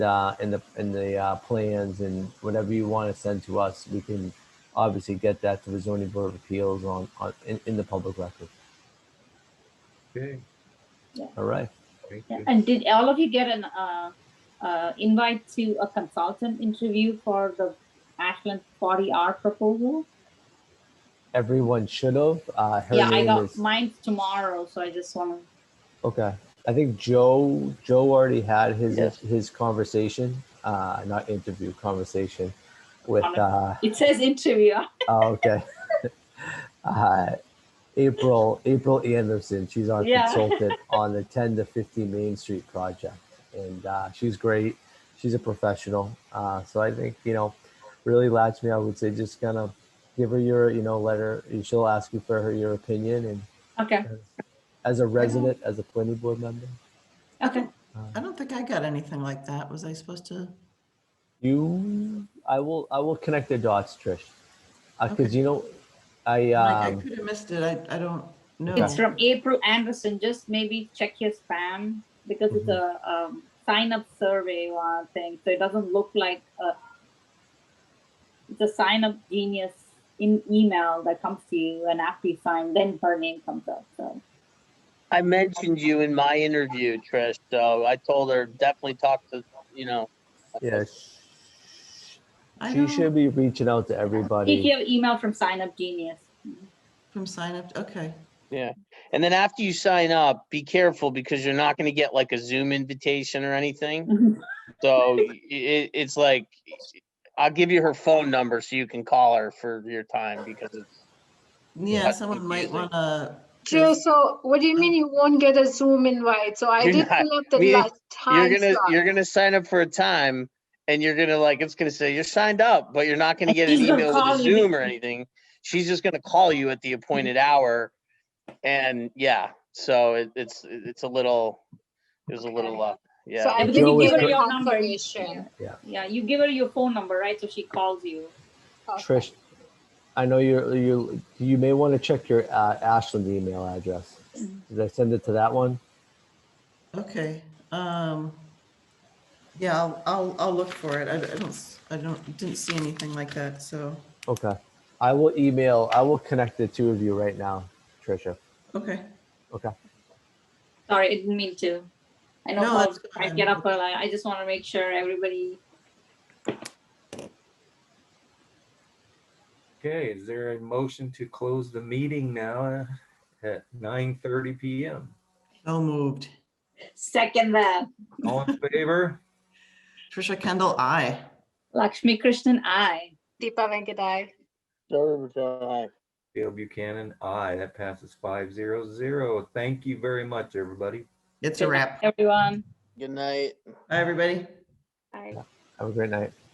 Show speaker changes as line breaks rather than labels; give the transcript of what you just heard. uh, in the, in the uh, plans and whatever you want to send to us, we can obviously get that to the zoning board of appeals on, on, in, in the public record.
Okay.
All right.
thank
Yeah,
you.
And did all of you get an uh, uh, invite to a consultant interview for the Ashland 40R proposal?
Everyone should have. Uh, her
yeah, I
name
got
is,
mine tomorrow, so I just want to.
okay. I think Joe, Joe already had his,
Yes.
his conversation, uh, not interview, conversation with,
Comment.
uh,
It says interview.
Oh, okay. uh, April April Anderson, she's our
Yeah.
consultant on the 10 to 50 Main Street project, and uh, she's great. She's a professional, uh, so I think you know, really latch me. I would say just kind of give her your you know let her. She'll ask you for her your opinion, and
Okay.
as a resident, as a planning board member, uh,
Okay.
I don't think I got anything like that. Was I supposed to?
you I will I will connect the dots, Trish, because
Okay.
you know I
Like, I
um,
could have missed it. I, I don't know.
It's from April Anderson. Just maybe check your spam because it's a
Mm-hmm.
um, sign up survey uh, thing. So it doesn't look like a, it's a sign up genius in email that comes to you. And after you sign, then her name comes up. So
I mentioned you in my interview, Trish, so I told her definitely talk to, you know.
yeah.
I
She
don't-
should be reaching out to everybody.
take your email from sign up genius.
From sign up, okay.
And then after you sign up, be careful because you're not gonna get like a Zoom invitation or anything. So it, it's like, I'll give you her phone number so you can call her for your time because it's,
Yeah,
That's
someone might
confusing.
want to.
Jill, so what do you mean you won't get a Zoom invite? So I
You're
did
not-
fill up the
we-
last
you're
time
gonna,
slot.
you're gonna sign up for a time and you're gonna like, it's gonna say you're signed up, but you're not gonna
And
get an
she's gonna
email with
call
a
you.
Zoom or anything. She's just gonna call you at the appointed hour. And yeah, so it, it's, it's a little, it was a little, uh, yeah.
So I
Because
did
Jill
give
is
her
gr-
your confirmation.
Yeah, you give her your phone number, right? So she calls you.
Trish, I know you're, you, you may want to check your uh, Ashland email address. Did I send it to that one?
Okay, um, yeah, I'll, I'll, I'll look for it. I I don't, s- I don't, didn't see anything like that, so,
Okay. I will email, I will connect the two of you right now, Trisha.
okay.
Sorry, I didn't mean to. I know
No,
how
that's
I
fine.
get up early. I just want to make sure everybody.
Okay, is there a motion to close the meeting now uh, at nine thirty PM?
So moved.
Second that.
All in favor?
Trisha Kendall, I.
Lakshmi Krishnan, I.
Deepa Venkatai.
Dale Buchanan, aye. That passes five zero zero. Thank you very much, everybody.
It's a wrap.
Everyone.
Good night.
Hi, everybody.
Aye.
Have a great night.